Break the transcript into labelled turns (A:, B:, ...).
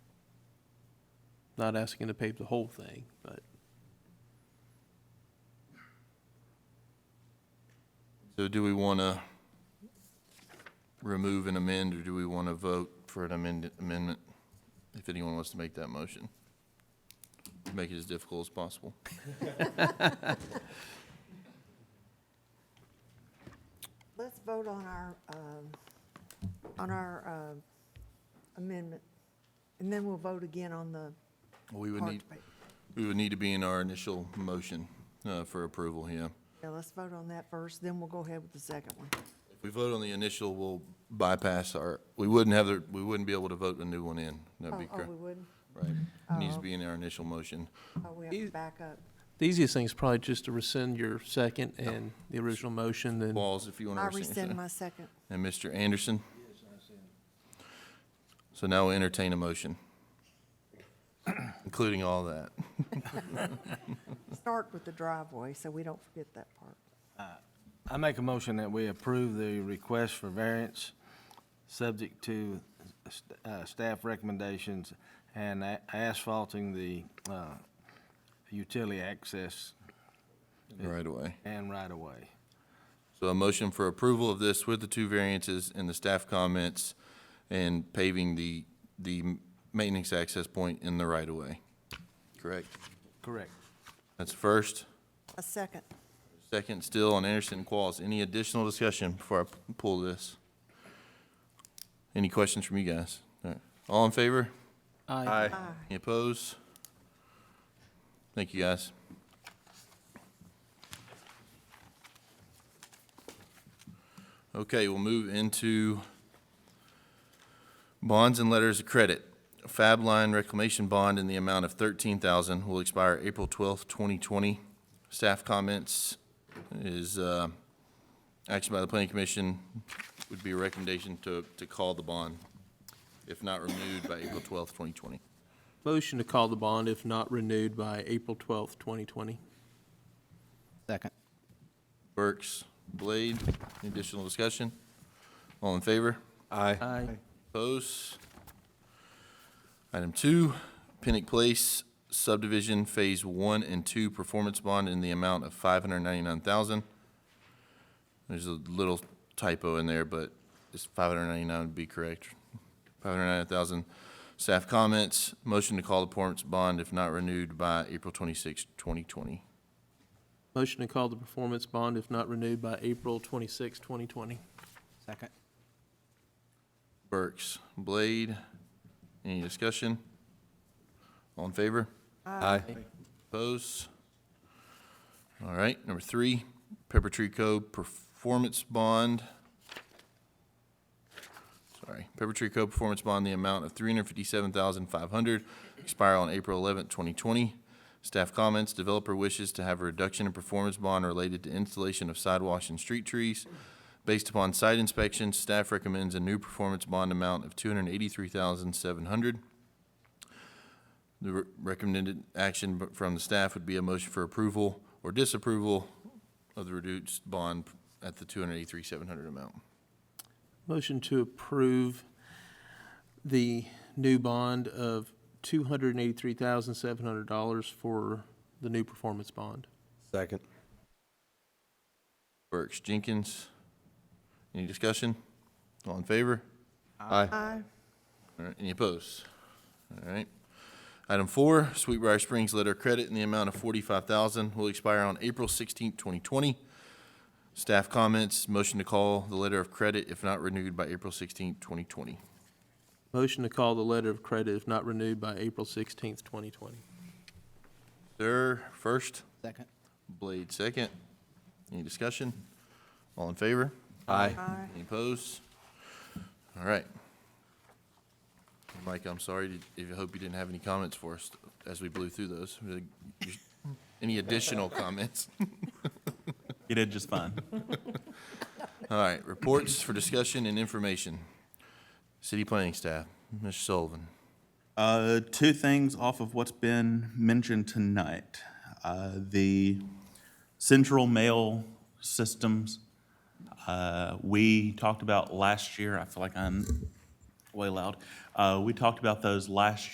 A: Not asking to pave the whole thing, but
B: So do we want to remove and amend, or do we want to vote for an amend- amendment? If anyone wants to make that motion. Make it as difficult as possible.
C: Let's vote on our, um, on our um, amendment, and then we'll vote again on the
B: We would
C: part
B: need, we would need to be in our initial motion uh, for approval, yeah.
C: Yeah, let's vote on that first, then we'll go ahead with the second one.
B: If we vote on the initial, we'll bypass our, we wouldn't have, the we wouldn't be able to vote a new one in. That'd be
C: Oh, oh,
B: correct,
C: we wouldn't?
B: right? It Needs to
C: Oh.
B: be in our initial motion.
C: Oh, we have to
A: Is-
C: back up.
A: the easiest thing is probably just to rescind your second and the original motion and
B: Walls, if you want to
C: I
B: rescind.
C: rescind my second.
B: And Mr. Anderson? So now we entertain a motion, including all that.
C: Start with the driveway, so we don't forget that part.
D: I make a motion that we approve the request for variance, subject to uh, staff recommendations and a- asphalting the uh, utility access
B: Right away.
D: and right-of-way.
B: So a motion for approval of this with the two variances and the staff comments and paving the, the maintenance access point in the right of way. Correct.
D: Correct.
B: That's first.
C: A second.
B: Second still on Anderson and Qualls. Any additional discussion before I p- pull this? Any questions from you guys? All right. All in favor?
A: I
C: Aye.
B: Any opposed? Thank you, guys. Okay, we'll move into bonds and letters of credit. Fab line reclamation bond in the amount of thirteen thousand will expire April twelfth, twenty twenty. Staff comments is, uh, action by the planning commission would be a recommendation to, to call the bond, if not renewed by April twelfth, twenty twenty.
A: motion to call the bond if not renewed by April twelfth, twenty twenty.
E: Second.
B: Burks, Blade, any additional discussion? All in favor? Aye.
A: Aye.
B: Opposed? Item two, Pinnock Place subdivision Phase One and Two performance bond in the amount of five hundred ninety-nine thousand. There's a little typo in there, but it's five hundred ninety-nine would be correct. Five hundred ninety-nine thousand. Staff comments, motion to call the performance bond if not renewed by April twenty-sixth, twenty twenty.
A: Motion to call the performance bond if not renewed by April twenty-sixth, twenty twenty.
E: Second.
B: Burks, Blade. Any discussion? All in favor? Aye. Opposed? All right, number three, Pepper Tree Cove Performance Bond. Sorry, Pepper Tree Cove Performance Bond, the amount of three hundred fifty-seven thousand five hundred, expire on April eleventh, twenty twenty. Staff comments, developer wishes to have a reduction in performance bond related to installation of sidewalks and street trees. Based upon site inspection, staff recommends a new performance bond amount of two hundred and eighty-three thousand seven hundred. The re- recommended action b- from the staff would be a motion for approval or disapproval of the reduced bond at the two hundred eighty-three seven hundred amount.
A: Motion to approve the new bond of two hundred and eighty-three thousand, seven hundred dollars for the new performance bond.
F: Second.
B: Burks, Jenkins, any discussion? All in favor?
C: Aye.
B: All right, any opposed? All right. Item four, Sweetbriar Springs Letter of Credit in the amount of forty-five thousand will expire on April sixteenth, twenty twenty. Staff comments, motion to call the letter of credit if not renewed by April sixteenth, twenty twenty.
A: Motion to call the letter of credit if not renewed by April sixteenth, twenty twenty.
B: Sir, first,
E: Second.
B: Blade, second. Any discussion? All in favor?
C: Aye.
B: Any opposed? All right. Mike, I'm sorry, did- I hope you didn't have any comments for us as we blew through those. Any additional comments?
G: You did just fine.
B: All right, reports for discussion and information. City planning staff, Mr. Sullivan.
G: Uh, two things off of what's been mentioned tonight. Uh, the central mail systems, uh, we talked about last year, I feel like I'm way loud. Uh, we talked about those last